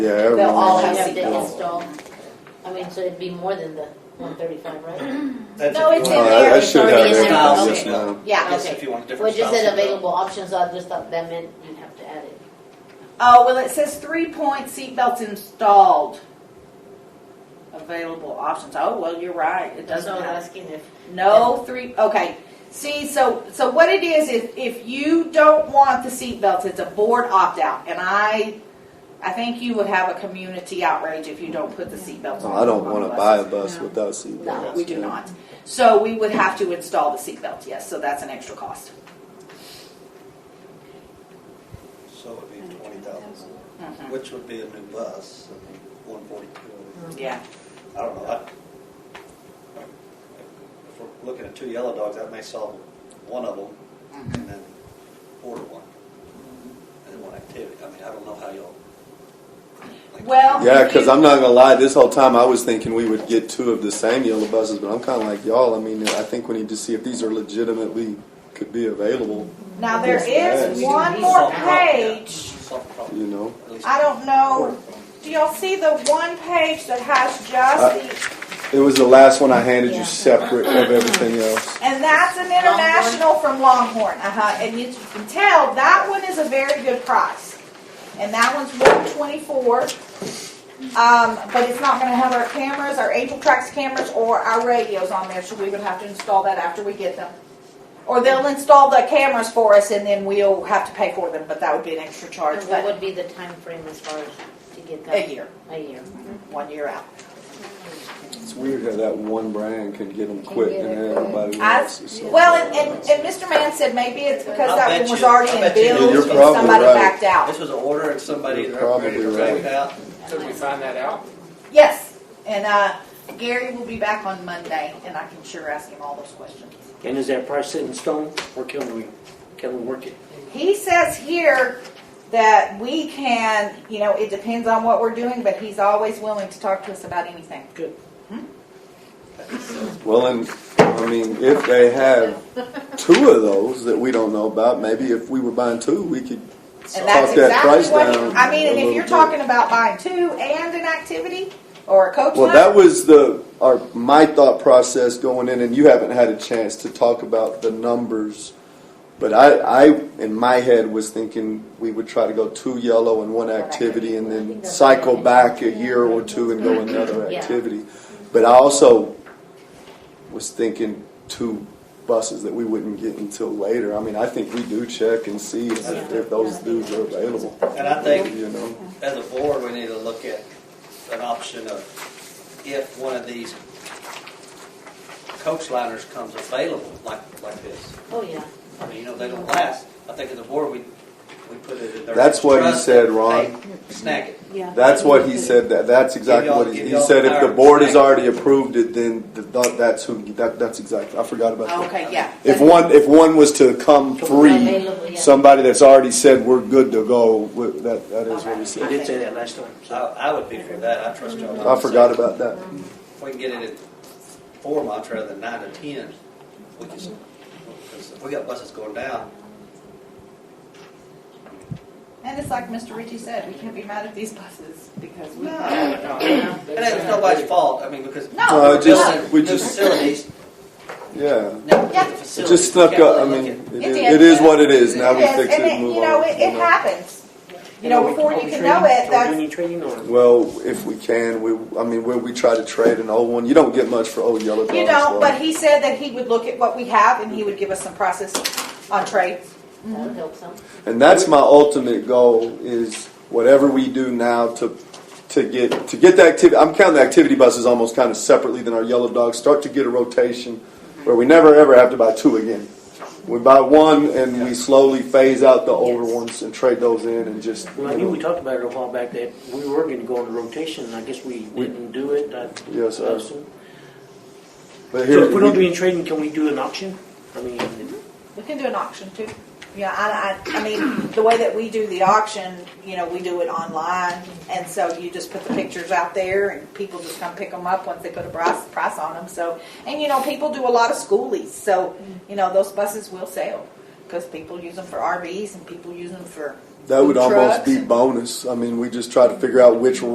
Yeah, They'll all everyone, have have to to go. install, I mean, so it'd be more than the one thirty-five, Mm-hmm. right? That's No, if it's you Oh, want- in I- I there. should have Already everything in there. just Okay. now. Yeah. Yes, if you want different Well, it just styles said of belt. available options, I just thought that meant you'd have to add it. Oh, well, it says three-point seatbelts installed. Available options. Oh, well, you're right. It That's doesn't all I'm have. asking if, No three, okay. See, so, so what it is, if, if you don't want the seatbelts, it's a board opt-out. And I, I think you would have a community outrage if you don't put the seatbelts on. I don't on want to buses. buy a bus No. without seatbelts. No, we do yeah. not. So we would have to install the seatbelt, yes, so that's an extra cost. So it'd be twenty thousand, Mhm. which would be a new bus, one forty-two. Yeah, I don't know. I- If we're looking at two yellow dogs, that may solve one of them Mm-hmm. and then order one. And then one activity. I mean, I don't know how y'all. like- Well- Yeah, because I'm not gonna lie. This whole time I was thinking we would get two of the same yellow buses, but I'm kind of like y'all. I mean, I think we need to see if these are legitimately could be available. now there Yes. is one more Solve the problem, yeah. page. Solve the problem. You know, At least- I don't know, do y'all see the one page that has just the, it was the last one I handed Yeah. you separate of everything else. and that's an international from Longhorn, uh-huh, and you can tell, that one is a very good price. And that one's one twenty-four, um, but it's not gonna have our cameras, our Angel Tracks cameras, or our radios on there, so we would have to install that after we get them. Or they'll install the cameras for us and then we'll have to pay for them, but that would be an extra charge, and what but would be the time frame as far as to get that? a year, A year. one year out. It's weird how that one brand can get them quick get and it everybody I- wants. it, so- Well, and, and, and Mr. Mann said maybe it's because I'll that bet one was you- already I'll in bet you- Yeah, bills you're and somebody probably right. backed out. This was an order and somebody You're either upgraded or probably backed right. out. Did we find that out? Yes, and, uh, Gary will be back on Monday and I can sure ask him all those questions. And is that price set in stone, or can we, can we work it? He says here that we can, you know, it depends on what we're doing, but he's always willing to talk to us about anything. Good. Well, and I mean, if they have two of those that we don't know about, maybe if we were buying two, we could And talk that's that exactly price what, down. he- I mean, a and little if you're bit. talking about buying two and an activity or a coach Well, load, that was the our my thought process going in, and you haven't had a chance to talk about the numbers. But I, I, in my head, was thinking we would try to go two yellow and one activity, and then cycle back a year or two and go another Yeah. activity. But I also was thinking two buses that we wouldn't get until later. I mean, I think we do check and see if, if those dues are available. And I think You know, as a board, we need to look at an option of if one of these coach liners comes available, like, like this. Oh, yeah. I mean, you know, they don't last. I think as a board, we, we put it in there. That's what he Trust said, it, Ron. hey, Snag it. That's what he said. That that's exactly y'all- what he, give he y'all said. If the power. board has already approved it, then th- th- that's who. That, that's exactly. I forgot about that. Okay, yeah. If one if one was to come free, Available, yeah. somebody that's already said we're good to go. w- That that is what he You said. did say that last time, I, so. I would be for that. I trust y'all. I forgot about that. If we can get it at four months rather than nine to ten, we can, because if we got buses going down, And it's like Mr. Ritchie said, we can't be mad at these buses because we. No. No, And it's nobody's fault, I mean, because. No, No, we're it just- building we new just- Facilities, Yeah, now Yeah. we get the it facilities. just We snuck can't up. I really mean, look it, It is- did. it is what it is. Now we Yes, fix it and and it, move you know, on. it, it you know. happens. You know, before you can know it, Are we that's, doing trading or? Well, if we can, we. I mean, where we try to trade an old one, you don't get much for old yellow. you dogs, know, though. but he said that he would look at what we have and he would give us some process on trades. That'll help some. And that's my ultimate goal is whatever we do now to to get to get the activity. I'm counting the activity buses almost kind of separately than our yellow dogs. Start to get a rotation where we never ever have to buy two again. We buy one and we slowly phase out the older Yes. ones and trade those in and just. Well, I knew we talked about it a while back that we were going to go into rotation, and I guess we didn't do it. I- Yes, sir. uh, So but so if we don't do we- any trading, can we do an auction? I mean, We can do an auction too. Yeah, I, I, I mean, the way that we do the auction, you know, we do it online. And so you just put the pictures out there and people just come pick them up once they put a price, price on them. So, and you know, people do a lot of schoolies. So, you know, those buses will sell because people use them for RVs and people use them for That would Food almost trucks. be bonus. I mean, we just try to figure out which